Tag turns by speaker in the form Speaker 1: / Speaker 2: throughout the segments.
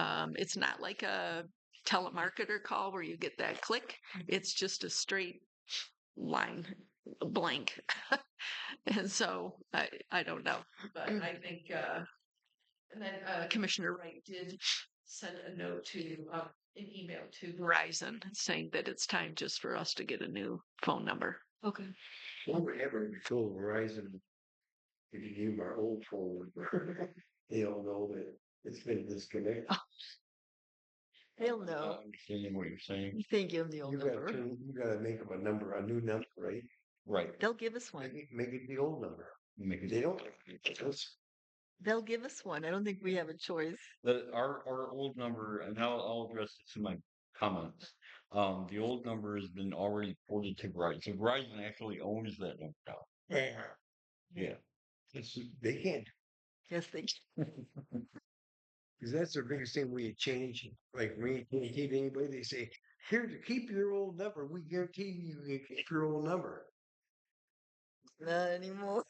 Speaker 1: Um, it's not like a telemarketer call where you get that click. It's just a straight line uh, blank. and so I, I don't know, but I think, uh, and then uh, Commissioner Wright did send a note to, uh, an email to Verizon saying that it's time just for us to get a new phone number.
Speaker 2: Okay.
Speaker 3: What would happen if we told Verizon, if you give our old phone number, they'll know that it's been disconnected.
Speaker 2: They'll
Speaker 3: I
Speaker 2: know.
Speaker 3: Understanding what you're saying.
Speaker 2: You think you'll know
Speaker 3: You gotta,
Speaker 2: number.
Speaker 3: turn- you gotta make them a number, a new number, right? Right.
Speaker 2: They'll give us
Speaker 3: Make
Speaker 2: one.
Speaker 3: it, make it the old number. Make it. They don't. That's,
Speaker 2: They'll give us one. I don't think we have a choice.
Speaker 4: The, our, our old number, and I'll, I'll address this in my comments. Um, the old number has been already ported to Verizon. So Verizon actually owns that number now. Yeah.
Speaker 3: that's, they can't,
Speaker 2: Yes, they.
Speaker 3: because that's the biggest thing we change, like we guarantee anybody, they say, here, to keep your old number, we guarantee you can keep your old number.
Speaker 2: Not anymore.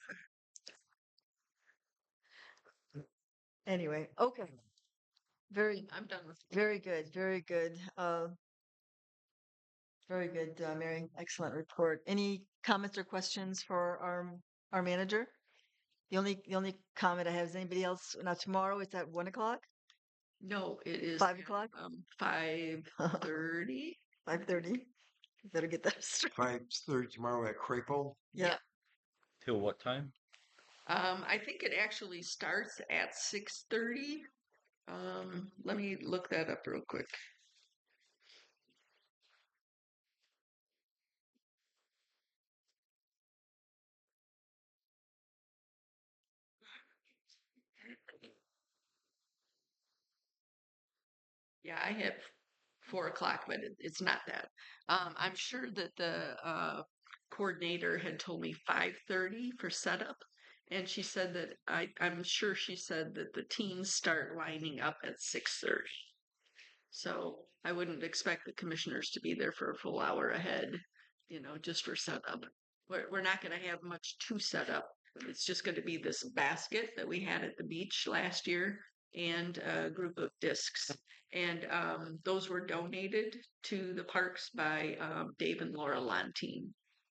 Speaker 2: Anyway, okay. Very,
Speaker 1: I'm done with
Speaker 2: very good, very good. Uh, very good, uh, Mary. Excellent report. Any comments or questions for our our manager? The only the only comment I have is anybody else. Now tomorrow it's at one o'clock,
Speaker 1: No, it is
Speaker 2: Five
Speaker 1: at,
Speaker 2: o'clock?
Speaker 1: Um, five thirty.
Speaker 2: five thirty. Better get that straight.
Speaker 3: Five thirty tomorrow at Crapo.
Speaker 2: Yeah.
Speaker 4: Till what time?
Speaker 1: Um, I think it actually starts at six thirty. Um, let me look that up real quick. Yeah, I have four o'clock, but it, it's not that. Um, I'm sure that the uh, coordinator had told me five thirty for setup. And she said that I, I'm sure she said that the teams start lining up at six thirty. So I wouldn't expect the commissioners to be there for a full hour ahead, you know, just for setup. We're, we're not gonna have much to set up. It's just gonna be this basket that we had at the beach last year and a group of discs. And, um, those were donated to the parks by, um, Dave and Laura Lanteen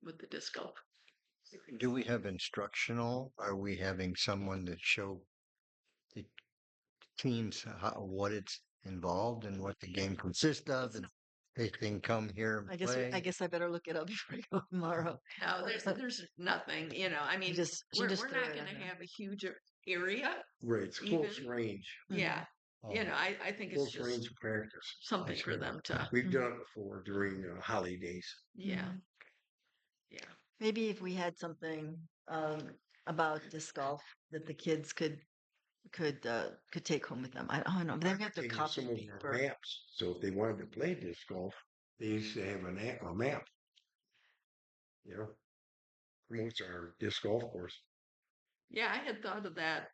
Speaker 1: with the disc golf.
Speaker 5: Do we have instructional? Are we having someone to show the teams how, what it's involved and what the game consists of? And they can come here
Speaker 2: I
Speaker 5: and
Speaker 2: guess we- I
Speaker 5: play?
Speaker 2: guess I better look it up before I go tomorrow.
Speaker 1: No, there's there's nothing, you know. I mean,
Speaker 2: just- she
Speaker 1: we're,
Speaker 2: just
Speaker 1: we're
Speaker 2: threw
Speaker 1: not
Speaker 2: it in
Speaker 1: going to
Speaker 2: there.
Speaker 1: have a huge a- area.
Speaker 3: Right, it's close range.
Speaker 2: Mm-hmm.
Speaker 1: Yeah, you
Speaker 3: um,
Speaker 1: know, I, I think it's
Speaker 3: Close range
Speaker 1: just
Speaker 3: of practice.
Speaker 1: something for
Speaker 3: sure.
Speaker 1: them to.
Speaker 3: We've
Speaker 2: Mhm.
Speaker 3: done it before during uh, holidays.
Speaker 1: Yeah,
Speaker 2: Mhm.
Speaker 1: yeah.
Speaker 2: Mm-hmm. Maybe if we had something um, about disc golf that the kids could could uh, could take home with them. I don't know. They have to
Speaker 3: Taking
Speaker 2: copy
Speaker 3: some of our
Speaker 2: paper.
Speaker 3: Maps, so if they wanted to play disc golf, they used to have an app, a map. You know, promotes our disc golf course.
Speaker 1: Yeah, I had thought of that,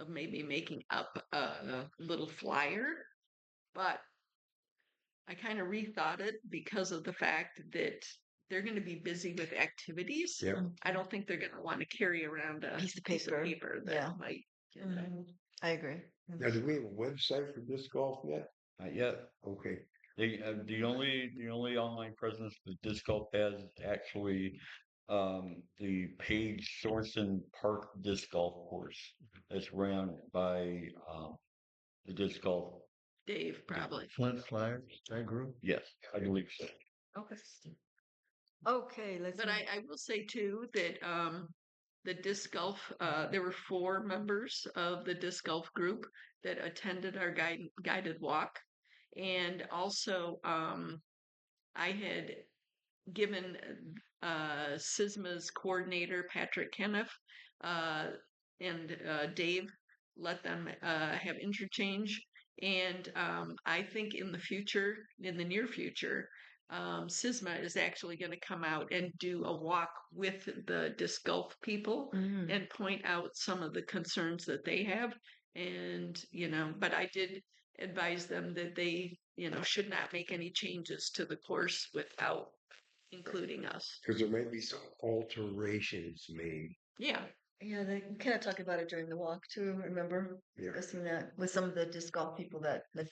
Speaker 1: of maybe making up a, a little flyer, but I kind of rethought it because of the fact that they're going to be busy with activities.
Speaker 3: Yep.
Speaker 2: Mm-hmm.
Speaker 1: I don't think they're going to want to carry around a
Speaker 2: Piece of paper,
Speaker 1: that
Speaker 2: yeah.
Speaker 1: might. you know.
Speaker 2: Mhm. I agree. Mm-hmm.
Speaker 3: Now, do we have a website for disc golf yet?
Speaker 4: Not yet.
Speaker 3: Okay,
Speaker 4: The, uh, the only, the only online presence that disc golf has is actually, um, the Page Sorensen Park Disc Golf Course.
Speaker 3: Mm-hmm.
Speaker 4: That's ran by, um, the disc golf,
Speaker 1: Dave probably.
Speaker 5: Flint Flyers, that group?
Speaker 4: yes, I believe so.
Speaker 1: Okay.
Speaker 2: Okay, let's.
Speaker 1: But I, I will say too that um, the disc golf, uh, there were four members of the disc golf group that attended our guide, guided walk. And also, um, I had given uh, SISMA's coordinator, Patrick Kenneth, uh, and uh, Dave, let them uh, have interchange. And um, I think in the future, in the near future, um, SISMA is actually going to come out and do a walk with the disc golf people
Speaker 2: Mhm.
Speaker 1: and point out some of the concerns that they have. And, you know, but I did advise them that they, you know, should not make any changes to the course without including us.
Speaker 3: because there may be some alterations made.
Speaker 1: Yeah.
Speaker 2: yeah, they kind of talk about it during the walk too. Remember
Speaker 3: Yeah.
Speaker 2: discussing that with some of the disc golf people that that